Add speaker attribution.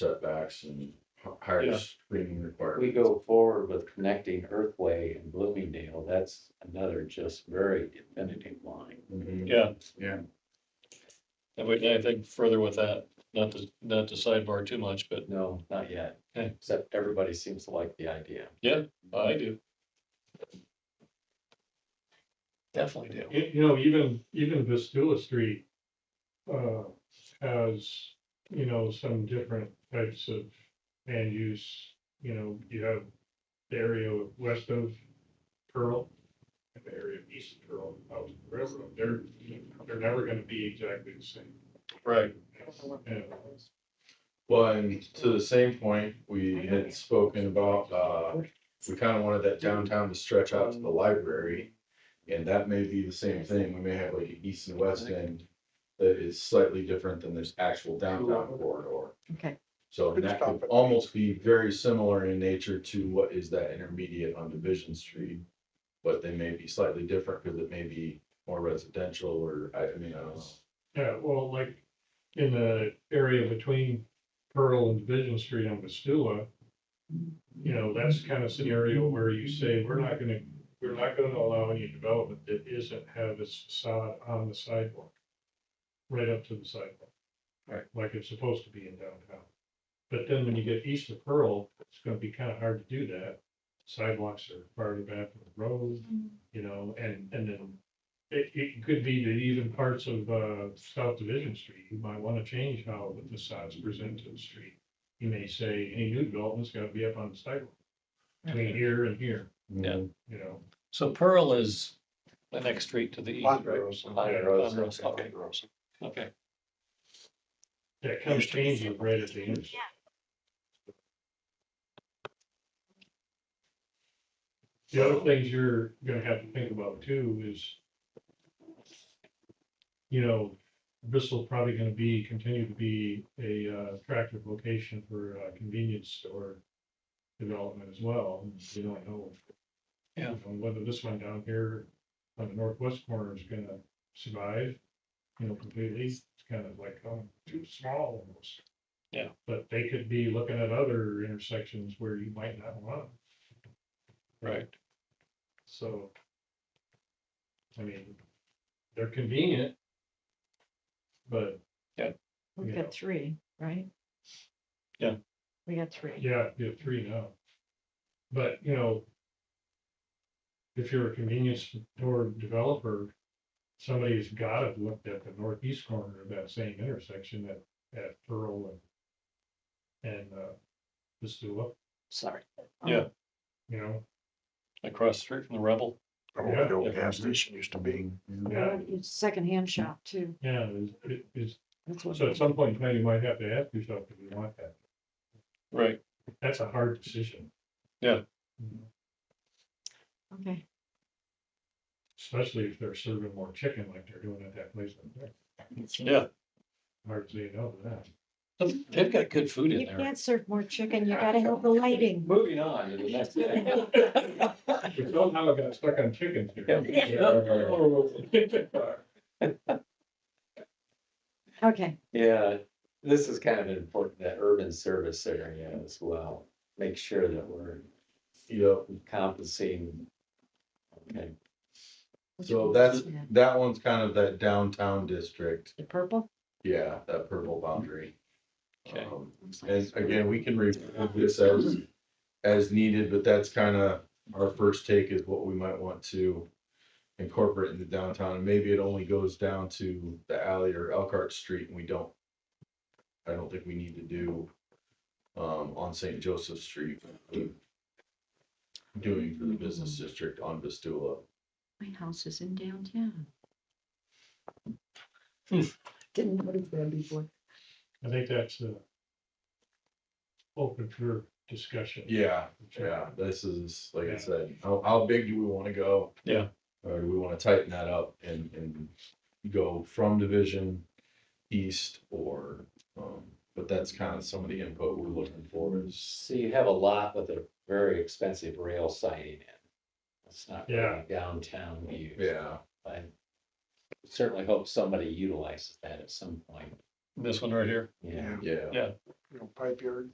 Speaker 1: setbacks and h- higher
Speaker 2: Yeah.
Speaker 1: screening
Speaker 3: If we
Speaker 1: requirements.
Speaker 3: go forward with connecting Earthway and Bloomingdale, that's another just very definitive line.
Speaker 1: Mhm.
Speaker 2: Yeah.
Speaker 1: Yeah.
Speaker 2: And we, I think further with that, not to, not to sidebar too much, but
Speaker 3: No, not yet,
Speaker 2: Okay.
Speaker 3: except everybody seems to like the idea.
Speaker 2: I do. Definitely do.
Speaker 4: You, you know, even, even Vestula Street, uh, has, you know, some different types of land use. You know, you have the area west of Pearl, and the area east of Pearl, out of the railroad, they're, they're never gonna be exactly the same.
Speaker 2: Right,
Speaker 4: Yeah.
Speaker 1: Well, and to the same point, we had spoken about, uh, we kind of wanted that downtown to stretch out to the library. And that may be the same thing. We may have like an east and west end that is slightly different than this actual downtown corridor.
Speaker 5: Okay.
Speaker 1: So that could almost be very similar in nature to what is that intermediate on Division Street. But they may be slightly different because it may be more residential or, I I mean, I don't know.
Speaker 4: Yeah, well, like in the area between Pearl and Division Street on Vestula, you know, that's the kind of scenario where you say, we're not gonna, we're not gonna allow any development that isn't have its facade on the sidewalk. Right up to the sidewalk.
Speaker 3: Right.
Speaker 4: Like it's supposed to be in downtown. But then when you get east of Pearl, it's gonna be kind of hard to do that. Sidewalks are farther back from the road you know, and, and then it, it could be that even parts of, uh, South Division Street, you might wanna change how the facades present to the street. You may say, any new development's gotta be up on the sidewalk, between here and here,
Speaker 2: Yeah.
Speaker 4: you know,
Speaker 2: so Pearl is the next street to the east, right?
Speaker 3: Ponderosa.
Speaker 2: Ponderosa, Okay, okay,
Speaker 4: that comes changing right at the end. The other things you're gonna have to think about too is, you know, Bristol probably gonna be, continue to be a uh, attractive location for uh, convenience store development as well. You don't know.
Speaker 2: Yeah.
Speaker 4: And Whether this one down here on the northwest corner is gonna survive, you know, completely, it's kind of like, oh, too small almost.
Speaker 2: Yeah.
Speaker 4: But they could be looking at other intersections where you might not want, 'em.
Speaker 2: right.
Speaker 4: so. I mean, they're convenient. But,
Speaker 5: We've
Speaker 4: Yeah.
Speaker 5: got three, right?
Speaker 2: Yeah.
Speaker 5: We got three.
Speaker 4: yeah, you have three now. But, you know. If you're a convenience store developer, somebody's gotta have looked at the northeast corner of that same intersection at, at Pearl and. And, uh, Missoula,
Speaker 5: Sorry.
Speaker 2: Yeah.
Speaker 4: you know,
Speaker 2: Across the street from the Rebel.
Speaker 6: Or
Speaker 4: Yeah.
Speaker 6: the old gas station used to be.
Speaker 1: Mm-hmm.
Speaker 4: yeah,
Speaker 5: Um, it's Secondhand shop too.
Speaker 4: yeah, it's- it- it's,
Speaker 5: That's what
Speaker 4: so
Speaker 5: it
Speaker 4: at
Speaker 5: is.
Speaker 4: some point, in time, you might have to ask yourself if you want that,
Speaker 2: Right,
Speaker 4: that's a hard decision.
Speaker 2: Yeah.
Speaker 5: Okay,
Speaker 4: Especially if they're serving more chicken like they're doing at that place. up there.
Speaker 2: yeah,
Speaker 4: Hard to say no to that.
Speaker 2: they've got good food in
Speaker 5: you
Speaker 2: there.
Speaker 5: can't serve more chicken. You gotta have the lighting.
Speaker 3: Moving on to the next. thing.
Speaker 4: But somehow it got stuck on chickens here.
Speaker 5: Okay,
Speaker 3: Yeah, this is kind of important, that urban service area as well. Make sure that we're
Speaker 1: Yep.
Speaker 3: encompassing. Okay,
Speaker 1: So that's, that one's kind of that downtown district.
Speaker 5: the purple.
Speaker 1: Yeah, that purple boundary.
Speaker 2: Okay.
Speaker 1: Um, And again, we can revisit this as, as needed, but that's kind of our first take is what we might want to incorporate into downtown. And maybe it only goes down to the alley or Elkhart Street and we don't, I don't think we need to do, um, on St. Joseph Street. um, Doing for the business district on Vestula.
Speaker 5: My house is in downtown.
Speaker 2: Hmm.
Speaker 5: Didn't notice that before.
Speaker 4: I think that's uh Open for discussion.
Speaker 1: Yeah, Yeah, this is, like I said, how, how big do we wanna go?
Speaker 2: Yeah.
Speaker 1: Or do we wanna tighten that up and, and go from division east or, um, but that's kind of some of the input we're looking for is.
Speaker 3: so you have a lot with a very expensive rail siding in. It's not
Speaker 4: Yeah.
Speaker 3: really downtown view.
Speaker 1: Yeah,
Speaker 3: I certainly hope somebody utilizes that at some point.
Speaker 2: This one right here,
Speaker 3: Yeah,
Speaker 1: yeah.
Speaker 2: Yeah.
Speaker 4: you know, pipe yard.